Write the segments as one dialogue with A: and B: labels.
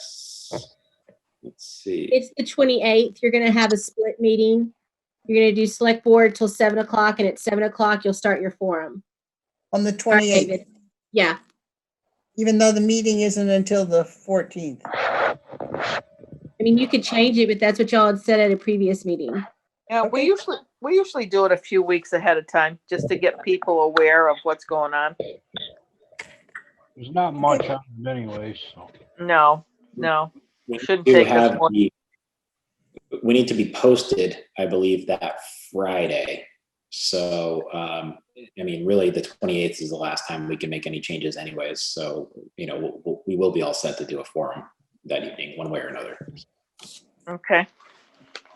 A: Yes. Let's see.
B: It's the twenty-eighth. You're gonna have a split meeting. You're gonna do select board till seven o'clock and at seven o'clock you'll start your forum.
C: on the
B: Right,
C: 28th,
B: David? Yeah,
C: even though the meeting isn't until the 14th.
B: I mean, you could change it, but that's what y'all had said at a previous meeting.
D: Yeah, we
C: Okay.
D: usually, we usually do it a few weeks ahead of time, just to get people aware of what's going on.
E: There's not much on it anyways, so.
D: No, no,
A: We
D: shouldn't
A: do
D: take us
A: have
D: more-
A: the- We need to be posted, I believe, that Friday. So, um, I mean, really, the 28th is the last time we can make any changes anyways. So, you know, we'll- we'll- we will be all set to do a forum that evening, one way or another.
D: okay.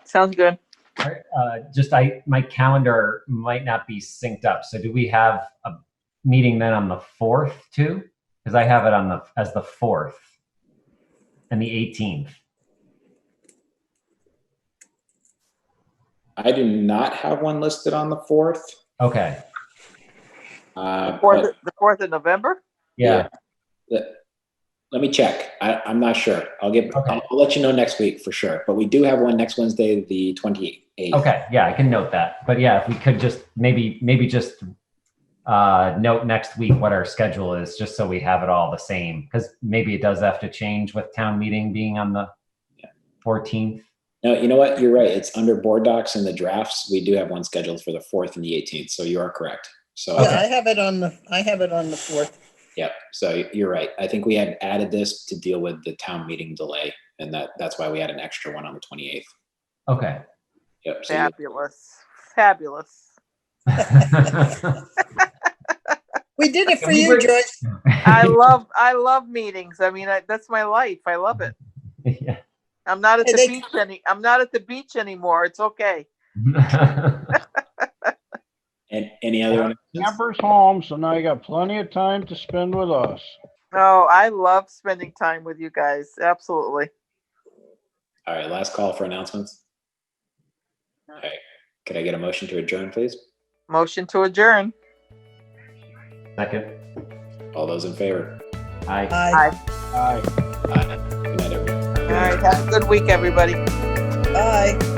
D: Sounds good.
F: Uh, just I, my calendar might not be synced up. So do we have a meeting then on the fourth too? Because I have it on the as the fourth and the 18th.
A: I do not have one listed on the 4th.
F: Okay.
A: uh, but-
D: Fourth, the fourth of November?
F: Yeah.
A: Let let me check. I, I'm not sure. I'll get,
F: Okay.
A: I'll I'll let you know next week for sure. But we do have one next Wednesday, the 28th.
F: Okay. Yeah, I can note that. But yeah, if we could just maybe maybe just uh, note next week what our schedule is, just so we have it all the same. Because maybe it does have to change with town meeting being on the 14th.
A: No, you know what? You're right. It's under board docs and the drafts. We do have one scheduled for the 4th and the 18th. So you are correct. So,
C: Yeah, I have it on the, I have it on the 4th.
A: yep. So you're right. I think we had added this to deal with the town meeting delay. And that, that's why we had an extra one on the 28th.
F: Okay.
A: Yep. So you-
D: Fabulous, fabulous.
C: We did it for
F: we
C: you,
F: were-
C: Joyce.
D: I love, I love meetings. I mean, I- that's my life. I love it.
F: yeah.
D: I'm not at
C: Hey,
D: the
C: they-
D: beach any, I'm not at the beach anymore. It's okay.
A: And any other? announcements?
E: Campers home, so now you got plenty of time to spend with us.
D: Oh, I love spending time with you guys. Absolutely.
A: All right. Last call for announcements. All right. Could I get a motion to adjourn, please?
D: Motion to adjourn.
F: Second.
A: All those in favor?
F: Aye.
C: Aye.
E: Aye.
A: Aye. Good night, everyone.
D: All right, have a good week, everybody.
C: Bye.